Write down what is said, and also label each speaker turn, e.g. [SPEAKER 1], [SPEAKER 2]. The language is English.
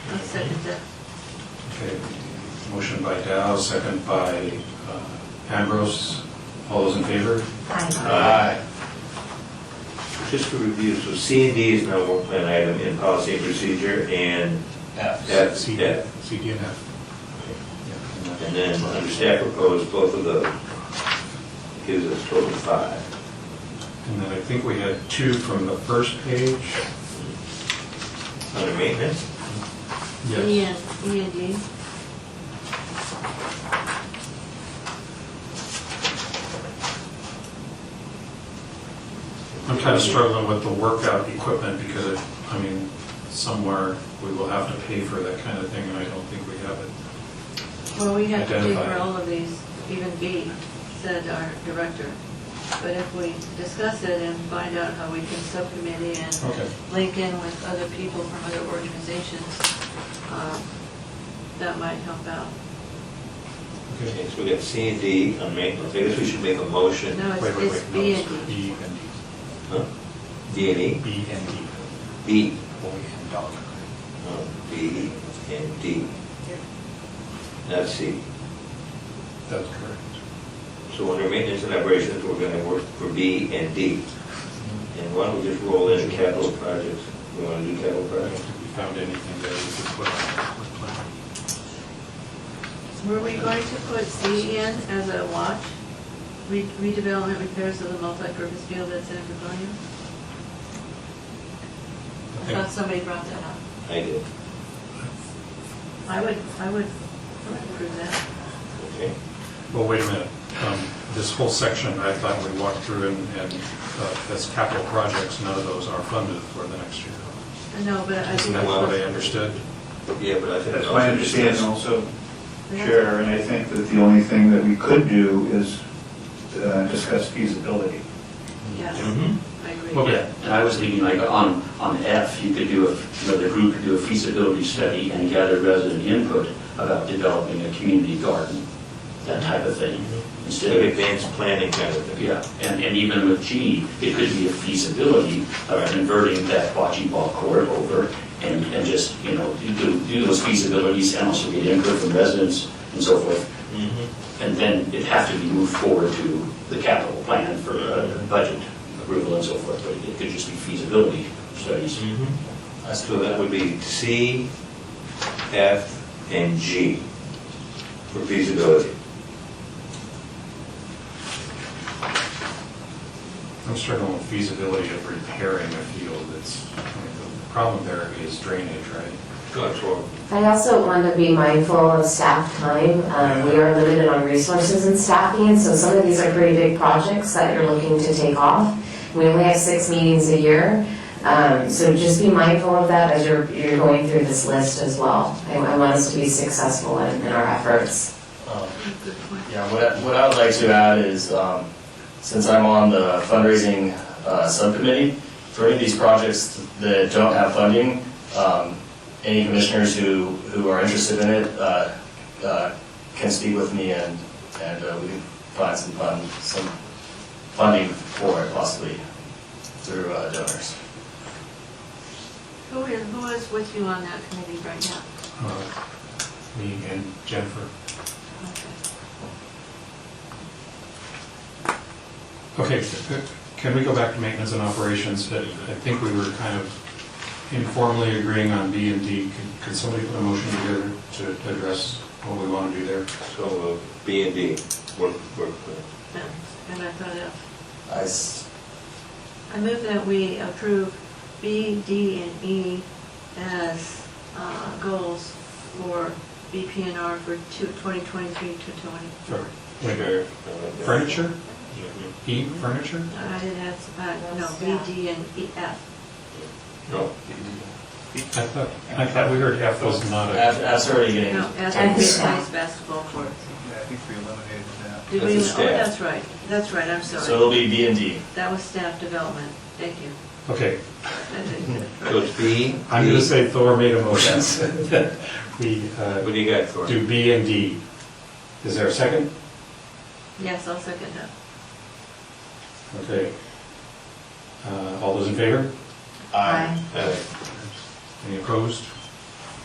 [SPEAKER 1] second that.
[SPEAKER 2] Okay, motion by Dow, second by uh, Ambrose. All those in favor?
[SPEAKER 3] Aye. Just for review, so C and D is now one plan item in policy and procedure, and F,
[SPEAKER 2] C-
[SPEAKER 3] F.
[SPEAKER 2] CD and F.
[SPEAKER 3] And then under staff proposed, both of those gives us total five.
[SPEAKER 2] And then I think we had two from the first page.
[SPEAKER 3] Under maintenance,
[SPEAKER 1] Yes, E and D.
[SPEAKER 2] I'm kind of struggling with the workout equipment because, it- I mean, somewhere we will have to pay for that kind of thing, and I don't think we have it.
[SPEAKER 1] Well, we have to do for
[SPEAKER 2] Identify.
[SPEAKER 1] all of these, even B, said our director. But if we discuss it and find out how we can subcommittee and
[SPEAKER 2] Okay.
[SPEAKER 1] link in with other people from other organizations, uh, that might help out.
[SPEAKER 2] Okay.
[SPEAKER 3] okay, so we got C and D on maintenance, I guess we should make a motion.
[SPEAKER 1] No, it's
[SPEAKER 2] Wait, wait,
[SPEAKER 1] it's
[SPEAKER 2] wait, no,
[SPEAKER 1] B
[SPEAKER 2] it's
[SPEAKER 1] and D.
[SPEAKER 2] B and
[SPEAKER 3] Huh? D and E?
[SPEAKER 2] D. B and D.
[SPEAKER 3] D.
[SPEAKER 2] Boy and dog.
[SPEAKER 3] No, Oh, B E and D, not C.
[SPEAKER 2] That's correct.
[SPEAKER 3] So under maintenance and operations, we're gonna work for B and D. And why don't we just roll in capital projects? We wanna do capital
[SPEAKER 2] I don't
[SPEAKER 3] projects?
[SPEAKER 2] think we found anything that we could put on with planning.
[SPEAKER 1] Were we going to put C in as a watch? Re- Redevelopment repairs of the multipurpose field at San Antonio?
[SPEAKER 2] I
[SPEAKER 1] I
[SPEAKER 2] think-
[SPEAKER 1] thought somebody brought that up.
[SPEAKER 3] I did,
[SPEAKER 1] I would, I would I would approve that.
[SPEAKER 3] okay.
[SPEAKER 2] Well, wait a minute. Um, This whole section, I thought we walked through and, and uh, as capital projects, none of those are funded for the next year.
[SPEAKER 1] No, but I
[SPEAKER 2] Isn't
[SPEAKER 1] think.
[SPEAKER 2] that
[SPEAKER 1] that's
[SPEAKER 2] what
[SPEAKER 1] what-
[SPEAKER 2] I understood?
[SPEAKER 3] Yeah, but I think.
[SPEAKER 4] That's my understanding also, Chair, and I think that the only thing that we could do is uh, discuss feasibility.
[SPEAKER 1] Yeah,
[SPEAKER 3] Mhm.
[SPEAKER 1] I agree.
[SPEAKER 2] Mm-hmm. Okay.
[SPEAKER 5] Yeah, and I was thinking like on, on F, you could do a, you know, the group could do a feasibility study and gather resident input about developing a community garden, that type of thing.
[SPEAKER 3] Instead of
[SPEAKER 5] Instead of,
[SPEAKER 3] advanced planning kind of thing.
[SPEAKER 5] yeah, and, and even with G, it could be a feasibility of converting that bocce ball court over and, and just, you know, do, do those feasibilities and also get input from residents and so forth.
[SPEAKER 3] Mhm.
[SPEAKER 5] And then it'd have to be moved forward to the capital plan for uh, budget approval and so forth, but it could just be feasibility studies.
[SPEAKER 3] mm-hmm. So that would be C, F, and G for feasibility.
[SPEAKER 2] I'm struggling with feasibility of repairing a field. It's, I mean, the problem there is drainage, right?
[SPEAKER 3] Control.
[SPEAKER 6] I also want to be mindful of staff time. Um, We are limited on resources and staffing, so some of these are pretty big projects that you're looking to take off. We only have six meetings a year, um, so just be mindful of that as you're, you're going through this list as well. I I want us to be successful in in our efforts.
[SPEAKER 7] Um,
[SPEAKER 1] Good point.
[SPEAKER 7] Yeah, what I, what I would like to add is, um, since I'm on the fundraising, uh, subcommittee, for any of these projects that don't have funding, um, any commissioners who, who are interested in it, uh, uh, can speak with me and, and uh, we can find some fund, some funding for it possibly through uh, donors.
[SPEAKER 1] Who is, who is with you on that committee right now?
[SPEAKER 2] Uh, Me and Jennifer.
[SPEAKER 1] Okay.
[SPEAKER 2] Okay, uh, can we go back to maintenance and operations? I I think we were kind of informally agreeing on B and D. Could- Could somebody put a motion together to address what we want to do there?
[SPEAKER 3] So uh, B and D, work, work plan.
[SPEAKER 1] And I thought of,
[SPEAKER 7] I s-
[SPEAKER 1] I move that we approve B, D, and E as uh, goals for BPNR for two- 2023 to 20.
[SPEAKER 2] Sure.
[SPEAKER 3] Sure. I like that.
[SPEAKER 2] Furniture?
[SPEAKER 3] Mhm.
[SPEAKER 2] E, furniture?
[SPEAKER 1] I didn't have, uh, no, B, D, and E, F.
[SPEAKER 3] No,
[SPEAKER 2] I thought, I thought we heard F was not a,
[SPEAKER 7] af- after already
[SPEAKER 5] E.
[SPEAKER 7] getting.
[SPEAKER 1] No, F
[SPEAKER 6] F
[SPEAKER 1] is
[SPEAKER 6] is
[SPEAKER 1] ice basketball courts.
[SPEAKER 4] Yeah, I think we eliminated that.
[SPEAKER 1] Did
[SPEAKER 3] That's
[SPEAKER 1] we,
[SPEAKER 3] a
[SPEAKER 1] oh,
[SPEAKER 3] staff.
[SPEAKER 1] that's right, that's right, I'm
[SPEAKER 7] So
[SPEAKER 1] sorry.
[SPEAKER 7] it'll be B and D.
[SPEAKER 1] That was staff development, thank you.
[SPEAKER 2] okay.
[SPEAKER 1] I did-
[SPEAKER 3] so it's B.
[SPEAKER 2] I'm going to
[SPEAKER 3] D.
[SPEAKER 2] say Thor made a motion. that We uh,
[SPEAKER 3] What do you got for it?
[SPEAKER 2] do B and D. Is there a second?
[SPEAKER 1] Yes, I'll second that.
[SPEAKER 2] Okay. Uh, All those in favor?
[SPEAKER 1] Aye.
[SPEAKER 3] Uh,
[SPEAKER 2] Any opposed?